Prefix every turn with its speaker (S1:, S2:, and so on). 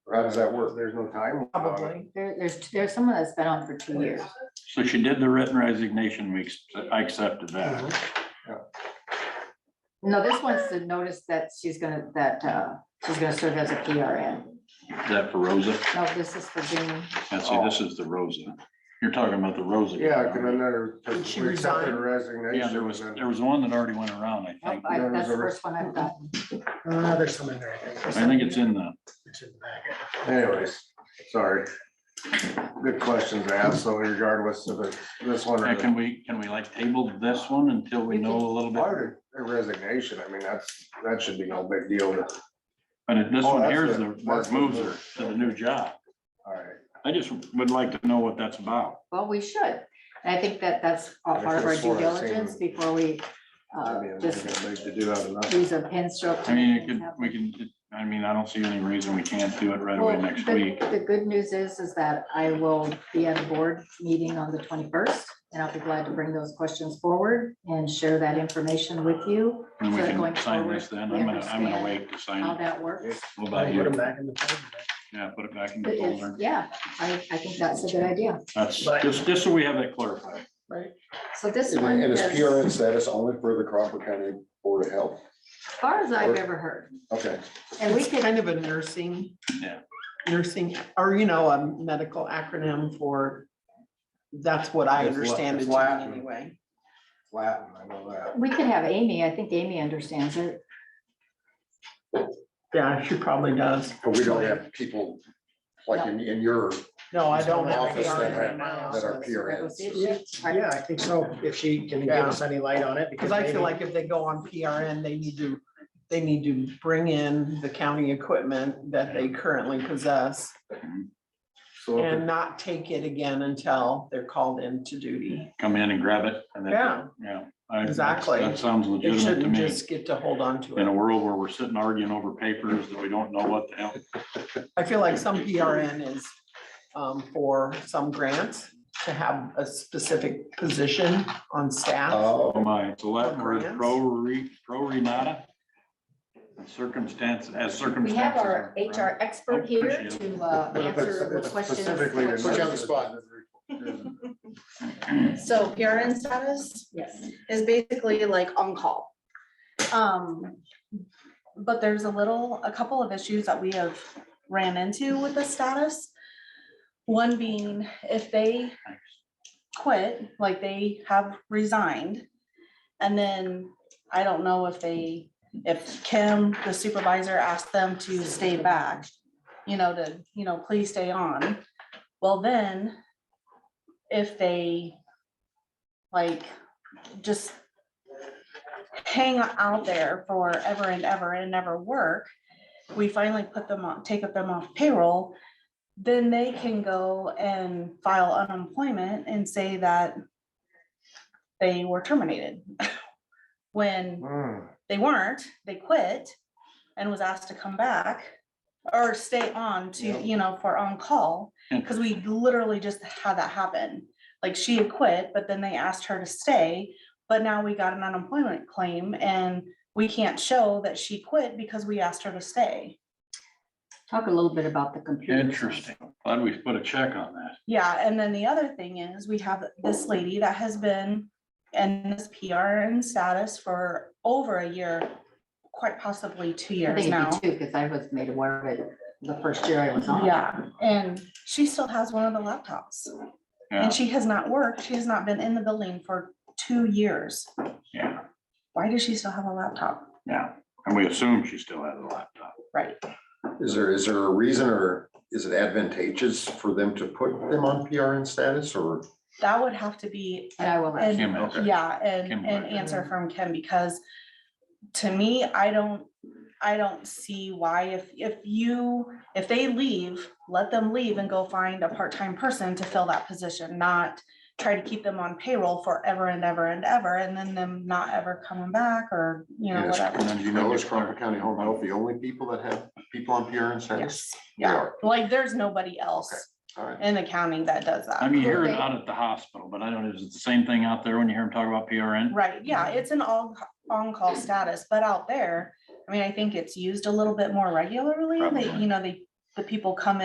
S1: Or how does that work? There's no time?
S2: probably. There, there's, there's someone that's been on for
S3: Oh,
S2: two years.
S3: So she did the written resignation, we, ex- I accepted that.
S1: Mm-hmm.
S2: No, this one's the notice that she's gonna, that, uh, she's gonna serve as a PRN.
S3: Is that for Rosa?
S2: No, this is for June.
S3: And see, this is the Rosa. You're talking about the Rosa. guy,
S1: Yeah,
S3: aren't
S1: because
S3: you?
S1: then there,
S4: Did
S1: because
S4: she
S1: we accepted
S4: resign?
S1: resignation.
S3: Yeah, there was,
S1: and
S3: there was one that already went around, I
S2: Nope,
S3: think.
S2: I-
S1: There was
S2: That's the
S1: a re-
S2: first one I've gotten.
S4: Uh, there's some in there. I think.
S3: I think it's in the,
S4: It's in the packet.
S1: Anyways, sorry. Good questions asked, so regardless of the- this one.
S3: Yeah,
S1: or
S3: can
S1: the-
S3: we, can we like table this one until we know a little bit?
S1: Or the Resignation, I mean, that's, that should be no big deal to,
S3: But if this
S1: Oh,
S3: one
S1: that's
S3: here is
S1: the-
S3: the
S1: that's
S3: work
S1: the
S3: moves her
S1: move.
S3: to the new job.
S1: all right.
S3: I just would like to know what that's about.
S2: Well, we should. And I think that that's a
S1: I
S2: part of our
S1: could've
S2: due
S1: swore I'd seen
S2: diligence
S1: it.
S2: before we, uh,
S1: That'd be a
S2: just
S1: big to do out of nothing.
S2: use a pen stroke. to
S3: I mean,
S2: make
S3: it
S2: things
S3: could,
S2: happen.
S3: we can, I mean, I don't see any reason we can't do it right away
S2: Well,
S3: next
S2: the-
S3: week.
S2: The good news is, is that I will be at a board meeting on the twenty-first, and I'll be glad to bring those questions forward and share that information with you,
S3: And we
S2: So going
S3: can sign
S2: forward,
S3: this then.
S2: we
S3: I'm gonna, I'm gonna
S2: understand
S3: wait to sign
S2: how
S3: it.
S2: that works.
S3: What about
S4: Put them
S3: you?
S4: back in the folder.
S3: Yeah, put it back in the
S2: It is-
S3: folder.
S2: Yeah, I, I think that's a good idea.
S3: That's,
S4: Right.
S3: just, just so we have that clarified.
S2: So this
S5: And
S2: one,
S5: it- and it's
S2: is
S5: PRN status only for the Crawford County Board of Health.
S2: as far as I've ever heard,
S5: Okay,
S2: and we
S4: It's
S2: could,
S4: Kind of a nursing.
S3: Yeah.
S4: Nursing, or you know, a medical acronym for, that's what I
S1: It's la-
S4: understand
S1: it's
S4: it to
S1: Latin.
S4: be anyway.
S1: Latin, I know that.
S2: we could have Amy, I think Amy understands it.
S4: Yeah, she probably does.
S5: but we don't have people like in, in your,
S4: No, I don't. have
S5: Office
S4: PR
S5: that
S4: in
S5: have-
S4: my
S5: that are
S4: office.
S2: That was it.
S5: PRNs.
S2: Right.
S6: Yeah, I think so, if she can give
S4: Yeah.
S6: us any light on it.
S4: Because I feel
S6: maybe-
S4: like if they go on PRN, they need to, they need to bring in the county equipment that they currently possess
S1: So if
S4: and not take it again until they're called into duty.
S3: Come in and grab it. and then-
S4: Yeah.
S3: Yeah. I-
S4: Exactly.
S3: That sounds
S4: They
S3: legitimate to
S4: shouldn't
S3: me.
S4: just get to hold on to
S3: In a
S4: it.
S3: world where we're sitting arguing over papers that we don't know what the hell.
S4: I feel like some PRN is um, for some grants to have a specific position on
S2: uh,
S4: staff.
S5: oh,
S3: Oh my, it's a Latin word,
S4: Grants?
S3: pro re, pro renata. Circumstance, as
S2: We
S3: circumstances.
S2: have
S3: are,
S2: our
S3: right?
S2: HR expert here
S3: Appreciate
S2: to uh,
S1: But if it's-
S2: answer the
S1: it's
S2: questions.
S1: specifically to
S5: Put you on the
S1: nurses,
S5: spot.
S7: So PRN status
S2: Yes,
S7: is basically like on-call. Um, but there's a little, a couple of issues that we have ran into with the status. One being if they quit, like they have resigned. And then I don't know if they, if Kim, the supervisor, asked them to stay back, you know, to, you know, please stay on. Well, then if they like just hang out there forever and ever and never work, we finally put them on, take up them off payroll, then they can go and file unemployment and say that they were terminated. When
S1: Hmm,
S7: they weren't, they quit and was asked to come back or stay on to, you know, for on-call.
S3: Yeah.
S7: Cause we literally just had that happen. Like she had quit, but then they asked her to stay, but now we got an unemployment claim and we can't show that she quit because we asked her to stay.
S2: talk a little bit about the computer.
S3: Interesting. Glad we put a check on that.
S7: Yeah, and then the other thing is, we have this lady that has been in this PRN status for over a year, quite possibly two
S2: I
S7: years
S2: think
S7: now.
S2: you too, because I was made aware of it the first year I was
S3: Oh,
S2: on.
S7: Yeah, and she still has one of the laptops
S3: Yeah,
S7: and she has not worked. She has not been in the building for two years.
S3: yeah,
S7: Why does she still have a laptop?
S3: yeah. And we assume she still has a laptop.
S7: Right.
S5: is there, is there a reason or is it advantageous for them to put them on PRN status or?
S7: That would have to be,
S2: And I will, let-
S7: and,
S3: Kim, okay.
S7: yeah, and,
S3: Kim
S7: an
S3: would.
S7: answer from Kim because to me, I don't, I don't see why if, if you, if they leave, let them leave and go find a part-time person to fill that position, not try to keep them on payroll forever and ever and ever, and then them not ever coming back or, you know,
S5: Yes.
S7: whatever.
S3: And then you
S5: No,
S3: know,
S5: is Crawford County Home Health the only people that have people on PRN status?
S7: Yes,
S5: They
S7: yeah,
S5: are.
S7: like there's nobody else
S5: All right.
S7: in the county that does
S3: I
S7: that.
S3: mean, you hear it out at the hospital, but I don't, know, is it the same thing out there when you hear them talk about PRN?
S7: Right, yeah, it's an all, on-call status, but out there, I mean, I think it's used a little bit more regularly. They,
S3: Probably.
S7: you know, they the people come in.